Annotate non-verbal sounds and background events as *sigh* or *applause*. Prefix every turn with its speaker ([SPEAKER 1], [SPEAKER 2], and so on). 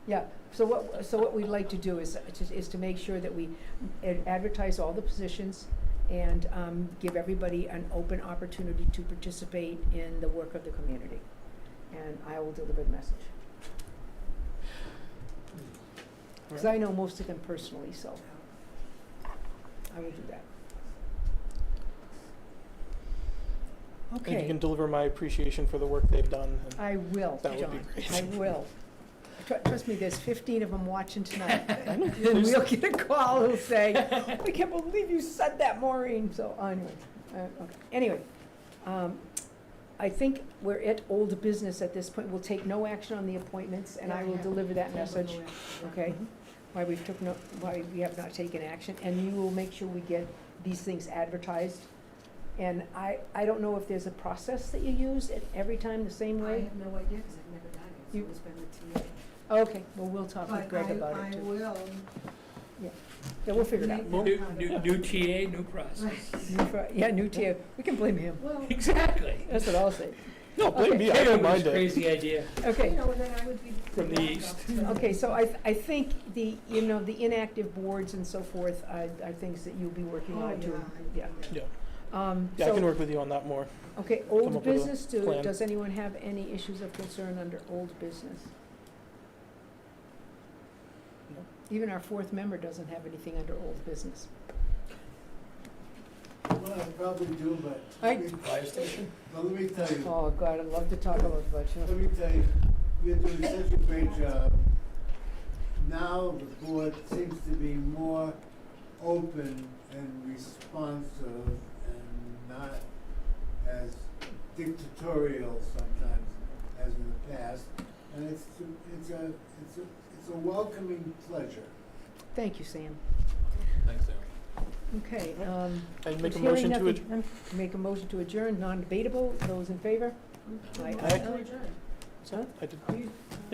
[SPEAKER 1] Yeah, so what, so what we'd like to do is, to- is to make sure that we ad- advertise all the positions and um, give everybody an open opportunity to participate in the work of the community. And I will deliver the message. Because I know most of them personally, so I will do that.
[SPEAKER 2] And you
[SPEAKER 1] Okay,
[SPEAKER 2] can deliver my appreciation for the work they've done. and-
[SPEAKER 1] I will,
[SPEAKER 2] That would be
[SPEAKER 1] John,
[SPEAKER 2] great.
[SPEAKER 1] I will. Tru- Trust me, there's fifteen of them watching tonight.
[SPEAKER 2] I know,
[SPEAKER 1] And
[SPEAKER 2] there's-
[SPEAKER 1] we'll get a call who'll say, we can't believe you said that, Maureen, so anyway, uh, okay, anyway. um, I think we're at old business at this point, we'll take no action on the appointments, and I will
[SPEAKER 3] Yeah.
[SPEAKER 1] deliver that message, okay?
[SPEAKER 2] Mhm.
[SPEAKER 1] Why we've took no, why we have not taken action, and you will make sure we get these things advertised. And I, I don't know if there's a process that you use it every time the
[SPEAKER 3] I
[SPEAKER 1] same way?
[SPEAKER 3] have no idea, because I've never done it, so
[SPEAKER 1] You-
[SPEAKER 3] it's been with TA.
[SPEAKER 1] Okay, well, we'll talk with
[SPEAKER 3] But
[SPEAKER 1] Greg
[SPEAKER 3] I-
[SPEAKER 1] about it
[SPEAKER 3] I
[SPEAKER 1] too. *laughs*
[SPEAKER 3] will.
[SPEAKER 1] Yeah, we'll figure it out.
[SPEAKER 3] make
[SPEAKER 4] New,
[SPEAKER 3] them
[SPEAKER 4] new,
[SPEAKER 3] come.
[SPEAKER 4] new TA, new process.
[SPEAKER 1] New fr- Yeah, new tier, we can blame him,
[SPEAKER 3] Well,
[SPEAKER 4] Exactly.
[SPEAKER 1] that's what I'll say.
[SPEAKER 2] No, blame me, I
[SPEAKER 4] Potato was
[SPEAKER 2] don't mind
[SPEAKER 4] a
[SPEAKER 2] it.
[SPEAKER 4] Crazy idea.
[SPEAKER 1] Okay,
[SPEAKER 3] you know, then I would be.
[SPEAKER 4] From the
[SPEAKER 3] backup
[SPEAKER 4] east.
[SPEAKER 3] to-
[SPEAKER 1] okay, so I, I think the, you know, the inactive boards and so forth are, are things that you'll be working
[SPEAKER 3] Oh,
[SPEAKER 1] on too.
[SPEAKER 3] yeah. I-
[SPEAKER 2] Yeah.
[SPEAKER 1] Um,
[SPEAKER 2] Yeah, I can
[SPEAKER 1] so,
[SPEAKER 2] work with you on that more.
[SPEAKER 1] okay,
[SPEAKER 2] come
[SPEAKER 1] old
[SPEAKER 2] up with a
[SPEAKER 1] business, do,
[SPEAKER 2] plan.
[SPEAKER 1] does anyone have any issues of concern under old business?
[SPEAKER 2] No.
[SPEAKER 1] Even our fourth member doesn't have anything under old business.
[SPEAKER 5] Well, I probably do, but.
[SPEAKER 1] I-
[SPEAKER 5] Fire station? Well, let me tell you,
[SPEAKER 1] Oh, God, I'd love to talk about that, you
[SPEAKER 5] let me tell you, you're doing such a great job. Now the board seems to be more open and responsive and not as dictatorial sometimes as in the past. And it's, it's a, it's a, it's a welcoming pleasure.
[SPEAKER 1] Thank you, Sam.
[SPEAKER 4] Thanks, Sam.
[SPEAKER 1] Okay, um,
[SPEAKER 2] I'd make a
[SPEAKER 1] Hearing
[SPEAKER 2] motion to
[SPEAKER 1] nothing.
[SPEAKER 2] adjourn.
[SPEAKER 1] make a motion to adjourn, non-debatable, those in favor?
[SPEAKER 3] Mhm.
[SPEAKER 1] Aye.
[SPEAKER 3] Motion to adjourn.
[SPEAKER 2] I did.
[SPEAKER 1] Are you-